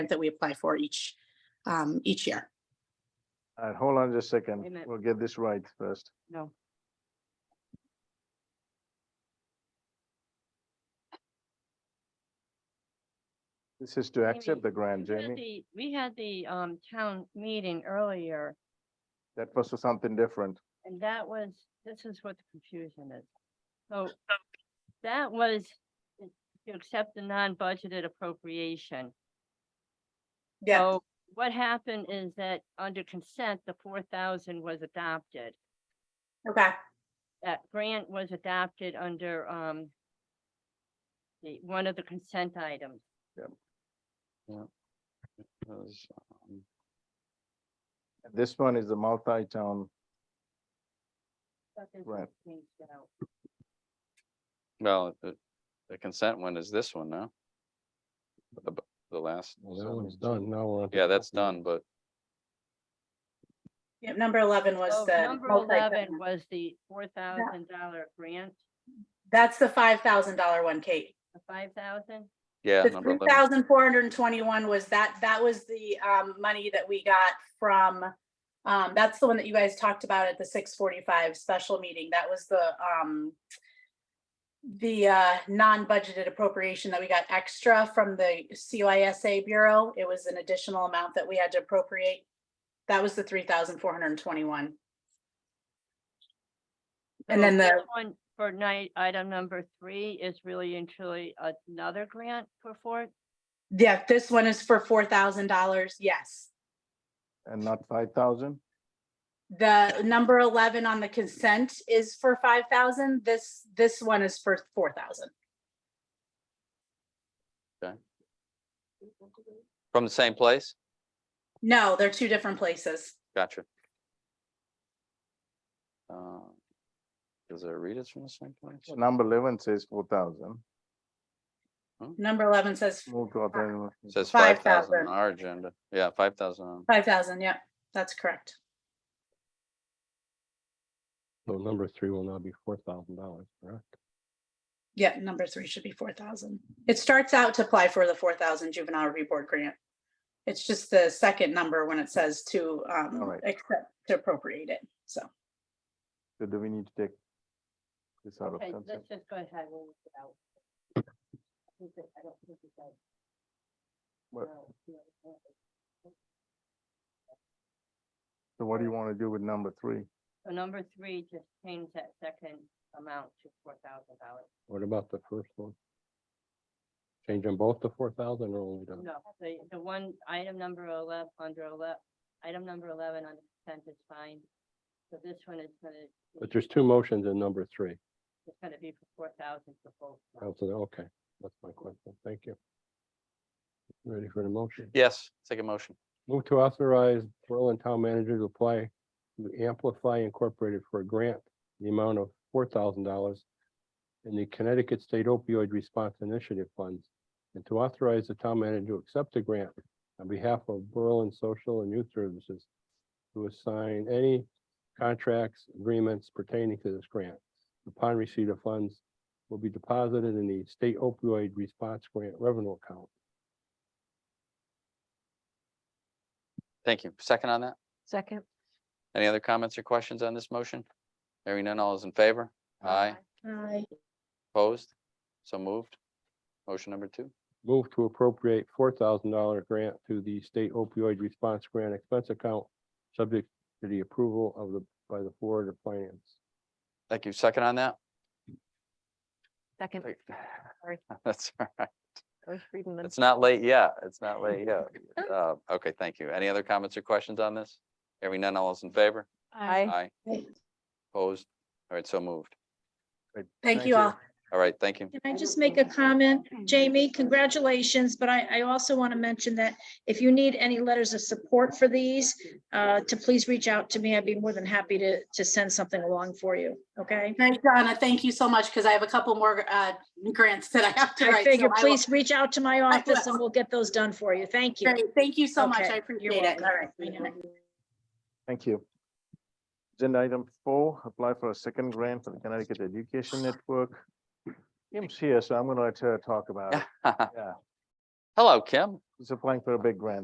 that we apply for each, um, each year. All right, hold on just a Wait a second. minute. We'll get this right first. No. This is to accept Jamie, the grant, we had Jamie. the- We had the um town meeting earlier, That was for something different. and that was, this is what the confusion is. So that was to accept the non-budgeted appropriation. So What happened is that under consent, the four thousand was adopted. Okay. That grant was adopted under um the, one of the consent items. Because, um, This one is the multi-town. But this Right. was changed out. Well, the, the consent one is this one now. The, bu- the last, Well, that one's done. Now we're. on to yeah, that's capital. done, but Yep, number eleven was So the. Oh, Number multi- eleven was the four thousand dollar grant, That's the five thousand dollar one, Kate. the five thousand? yeah. The number three 11. thousand four hundred and twenty-one was that, that was the, um, money that we got from, um, that's the one that you guys talked about at the six forty-five special meeting. That was the, um, the, uh, non-budgeted appropriation that we got extra from the CYSA Bureau. It was an additional amount that we had to appropriate. That was the three thousand four hundred and twenty-one. And So then the this One for night, item number three is really and truly another grant for four, Yeah, this one is for four thousand dollars, yes. And not five thousand? The number eleven on the consent is for five thousand, this, this one is for four thousand. From the same place? No, they're two different places. Gotcha. Uh, Does it read it from the same place? Number eleven says four thousand. Number eleven says Move to authorize. It Ah. Says Five five thousand thousand. on our agenda. Yeah, five thousand. five thousand, yep, that's correct. So number three will now be four thousand dollars, correct? Yeah, number three should be four thousand. It starts out to apply for the four thousand juvenile review board grant. It's just the second number when it says to, All um, right. accept, to appropriate it, so. So do we need to take this out of okay, consent? let's just go ahead. and work it out. I think that- I don't think it does. What- No, no, no. So what do you want to do with number three? So number three, just change that second amount to four thousand dollars. What about the first one? Change them both to four thousand or only to? No, the, the one, item number eleven, under eleven, item number eleven on the consent is fine. So this one is gonna. be- But there's two motions in number three. It's gonna be for four thousand for both. I was like, Okay, that's my question. Thank you. Ready for the motion? Yes, take a motion. Move to authorize Berlin Town Manager to apply to Amplify Incorporated for a grant, in the amount of four thousand dollars in the Connecticut State Opioid Response Initiative Funds, and to authorize the town manager to accept the grant on behalf of Berlin Social and Youth Services to assign any contracts, agreements pertaining to this grant. Upon receipt of funds will be deposited in the State Opioid Response Grant Revenue Account. Thank you. Second on that? Second. Any other comments or questions on this motion? Hearing none, all is in favor? Aye, Aye. opposed? So moved. Motion number two. Move to appropriate four thousand dollar grant to the state opioid response grant expense account, subject to the approval of the, by the Board of Finance. Thank you. Second on that? Second, Thank- sorry, That's all right. I was reading them. It's not late yet. It's not late yet. Uh, Okay, thank you. Any other comments or questions on this? Hearing none, all is in favor? Aye. Aye. Aye. Opposed? All right, so moved. Thank you all. All right, thank you. Can I just make a comment? Jamie, congratulations, but I, I also want to mention that if you need any letters of support for these, uh, to please reach out to me. I'd be more than happy to, to send something along for you, okay? Thanks, Donna. Thank you so much, because I have a couple more uh, grants that I have to I write. so figure, will- please reach out to my office will. and we'll get those done for you. Thank you. Great. Thank you so much. Okay, I appreciate you're it. welcome. All right. Thank you. Agenda item four, apply for a second grant for the Connecticut Education Network. Kim's here, so I'm gonna let her talk about it. Yeah. Hello, Kim. he's applying for a big grant.